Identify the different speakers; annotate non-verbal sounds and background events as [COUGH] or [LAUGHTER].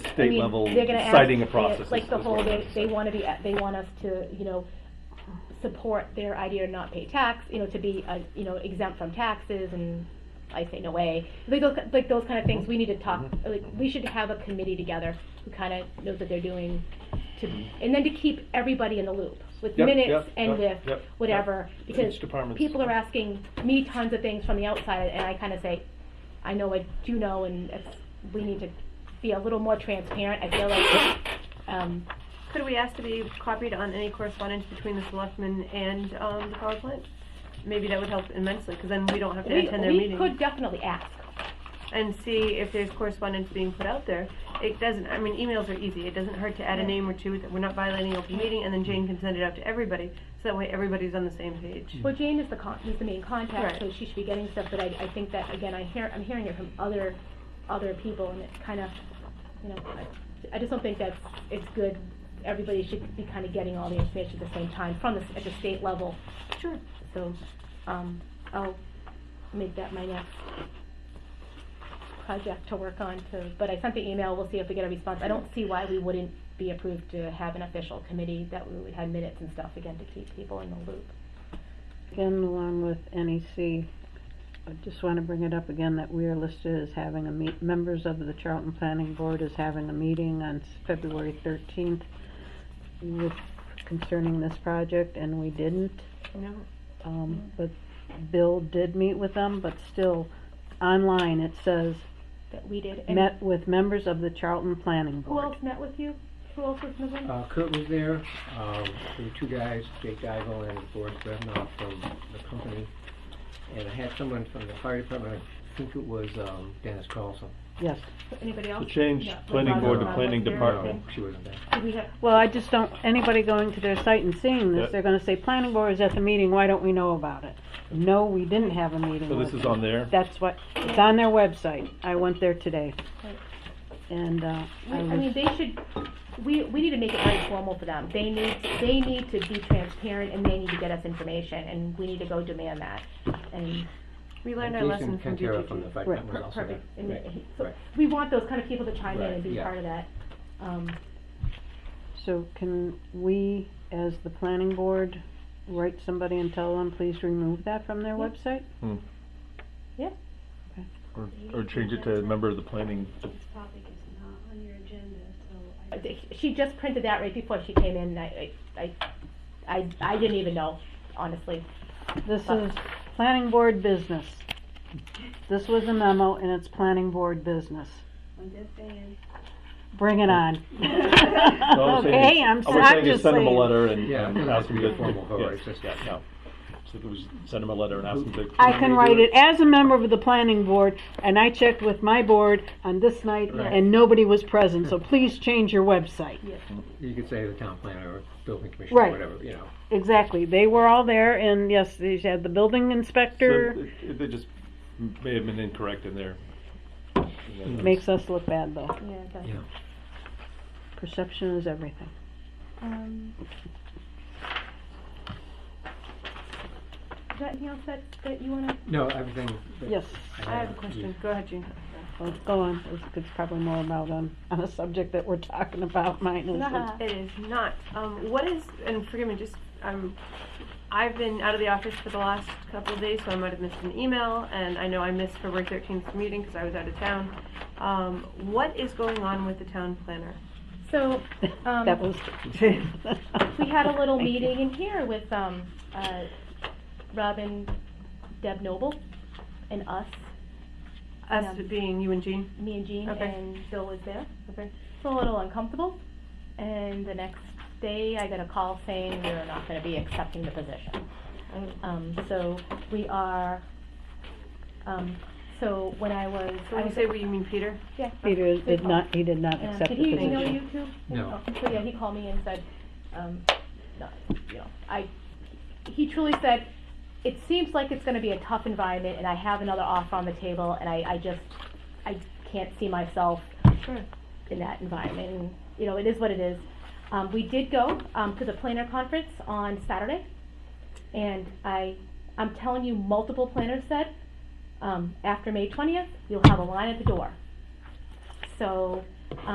Speaker 1: I
Speaker 2: state
Speaker 1: mean,
Speaker 2: level
Speaker 1: they're gonna ask-
Speaker 2: citing a
Speaker 1: yeah,
Speaker 2: process. is-
Speaker 1: Like the
Speaker 2: is
Speaker 1: whole,
Speaker 2: what I'm
Speaker 1: they, they wanna be, at- they want us to, you know, support their idea to not pay tax, you know, to be, uh, you know, exempt from taxes and I say no way. Like those, like those kind of things, we need to talk,
Speaker 2: Mm-hmm.
Speaker 1: like, we should have a committee together who kinda knows what they're doing to, and then to keep everybody in the loop with
Speaker 2: Yep, yep,
Speaker 1: minutes and
Speaker 2: yep,
Speaker 1: with
Speaker 2: yep, yep.
Speaker 1: whatever. Because
Speaker 2: Each department's-
Speaker 1: people are asking me tons of things from the outside and I kinda say, I know I do know, and if we need to be a little more transparent. I
Speaker 2: [COUGHS]
Speaker 1: feel like, um,
Speaker 3: Could we ask to be copied on any correspondence between the selectmen and, um, the power plant? Maybe that would help immensely, cause then we don't have to
Speaker 1: we,
Speaker 3: attend their
Speaker 1: we
Speaker 3: meeting.
Speaker 1: could definitely ask.
Speaker 3: And see if there's correspondence being put out there. It doesn't, I mean, emails are easy, it doesn't hurt to add a name or two, that we're not violating open meeting, and then Jane can send it out to everybody, so that way everybody's on the same page.
Speaker 1: Well, Jane is the con, is the main contact,
Speaker 3: Right.
Speaker 1: so she should be getting stuff, but I, I think that, again, I hear, I'm hearing it from other, other people, and it's kind of, you know, I, I just don't think that's, it's good. Everybody should be kind of getting all the information at the same time from the, s- at the state level,
Speaker 3: Sure.
Speaker 1: so, um, I'll make that my next project to work on to, but I sent the email, we'll see if we get a response. I don't see why we wouldn't be approved to have an official committee that we would have minutes and stuff again to keep people in the loop.
Speaker 4: Again, along with NEC, I just want to bring it up again that we are listed as having a meet, members of the Charlton Planning Board is having a meeting on s- February thirteenth with, concerning this project, and we didn't.
Speaker 3: No.
Speaker 4: Um, but Bill did meet with them, but still, online it says,
Speaker 1: that we did. And
Speaker 4: met with members of the Charlton Planning
Speaker 1: who
Speaker 4: Board.
Speaker 1: else met with you? Who else was in the room?
Speaker 5: Uh, Kurt was there, um, there were two guys, Jake Dival and Boris Brevnoff from the company. And I had someone from the fire department, I think it was, um, Dennis Carlson.
Speaker 4: Yes.
Speaker 1: Anybody else?
Speaker 2: To change
Speaker 1: Yeah, like
Speaker 2: planning
Speaker 1: Roger
Speaker 2: board to
Speaker 1: Brown
Speaker 2: planning
Speaker 1: was there.
Speaker 2: department.
Speaker 5: No, she wasn't there.
Speaker 1: Did we have,
Speaker 4: Well, I just don't, anybody going to their site and seeing
Speaker 2: Yeah.
Speaker 4: this, they're gonna say, planning board is at the meeting, why don't we know about it? No, we didn't have a meeting.
Speaker 2: So this
Speaker 4: with
Speaker 2: is
Speaker 4: them.
Speaker 2: on there?
Speaker 4: That's what, it's on their website, I went there today.
Speaker 1: Right.
Speaker 4: And, uh,
Speaker 1: we-
Speaker 4: I
Speaker 1: I mean,
Speaker 4: was,
Speaker 1: they should, we, we need to make it very formal for them. They need, they need to be transparent and they need to get us information and we need to go demand that. And,
Speaker 3: We learned our
Speaker 5: And
Speaker 3: lesson from
Speaker 5: Jason Cantara from the
Speaker 3: DGG.
Speaker 5: fire
Speaker 4: Right.
Speaker 5: department was also there.
Speaker 1: perfect. And
Speaker 5: Right,
Speaker 1: he- so
Speaker 5: right.
Speaker 1: we want those kind of people to chime in
Speaker 5: Right,
Speaker 1: and be
Speaker 5: yeah.
Speaker 1: part of that. Um,
Speaker 4: so can we, as the planning board, write somebody and tell them, please remove that from their
Speaker 1: Yeah.
Speaker 4: website?
Speaker 2: Or, or change it to member of the
Speaker 1: [LAUGHS]
Speaker 2: planning. de-
Speaker 6: This topic is not on your agenda, so I.
Speaker 1: I think she just printed that right before she came in. and I, I, I, I didn't even know, honestly.
Speaker 4: This is planning board business. This was a memo and it's planning board business.
Speaker 6: I'm just saying,
Speaker 4: Bring
Speaker 2: [LAUGHS]
Speaker 4: it on.
Speaker 2: All I'm saying is-
Speaker 4: Okay, I'm,
Speaker 2: all
Speaker 4: so-
Speaker 2: we're
Speaker 4: I'm
Speaker 2: saying is
Speaker 4: just
Speaker 2: Send them a
Speaker 4: saying.
Speaker 2: letter and.
Speaker 5: Yeah,
Speaker 2: and
Speaker 5: it doesn't
Speaker 2: ask
Speaker 5: have
Speaker 2: them
Speaker 5: to be a formal
Speaker 2: yes,
Speaker 5: vote, it's just-
Speaker 2: Yeah, no. So we just send them a letter and ask them to.
Speaker 4: I can write it as a member of the planning board, and I checked with my board on this night, and nobody was present, so please change your website.
Speaker 5: You could say the town planner or building commissioner,
Speaker 4: Right.
Speaker 5: whatever, you know.
Speaker 4: Exactly, they were all there, and yes, they had the building
Speaker 2: So
Speaker 4: inspector,
Speaker 2: it- it- They just may have been incorrect in there. uh,
Speaker 4: makes us look bad though.
Speaker 1: Yeah, it does.
Speaker 5: Yeah.
Speaker 4: Perception is everything.
Speaker 1: Um, Is that anything else that, that you wanna?
Speaker 5: No, everything. that
Speaker 4: Yes,
Speaker 3: I have a question, go ahead, Jane.
Speaker 4: well, go on, It's- it's probably more about on, on a subject that we're talking about, mine
Speaker 1: Nah.
Speaker 4: [LAUGHS] is.
Speaker 3: It is not. Um, what is, and forgive me, just, um, I've been out of the office for the last couple of days, so I might have missed an email, and I know I missed February 13th meeting because I was out of town. Um, what is going on with the town planner?
Speaker 1: So, um.
Speaker 4: That was.
Speaker 1: we had a
Speaker 4: [LAUGHS]
Speaker 1: little meeting in here with um, uh, Robin, Deb Noble, and us,
Speaker 3: Us
Speaker 1: Yeah.
Speaker 3: being you and Jean?
Speaker 1: me and Jean,
Speaker 3: Okay.
Speaker 1: and Bill was there.
Speaker 3: Okay.
Speaker 1: It's a little uncomfortable, and the next day I got a call saying we're not going to be accepting the position.
Speaker 3: Oh.
Speaker 1: Um, so we are. Um, so when I was, I
Speaker 3: So when
Speaker 1: was
Speaker 3: you say we, you mean Peter?
Speaker 1: yeah.
Speaker 4: Peter did
Speaker 1: Oh.
Speaker 4: not, he did not
Speaker 1: Um,
Speaker 4: accept the
Speaker 1: Did he email
Speaker 4: position.
Speaker 1: you too?
Speaker 5: No.
Speaker 1: Oh, So yeah, he called me and said, um, no, you know, I, he truly said, it seems like it's gonna be a tough environment and I have another offer on the table and I, I just, I can't see myself
Speaker 3: Sure.
Speaker 1: in that environment and, you know, it is what it is. Um, we did go, um, to the planner conference on Saturday and I, I'm telling you, multiple planners said, um, after May twentieth, you'll have a line at the door. So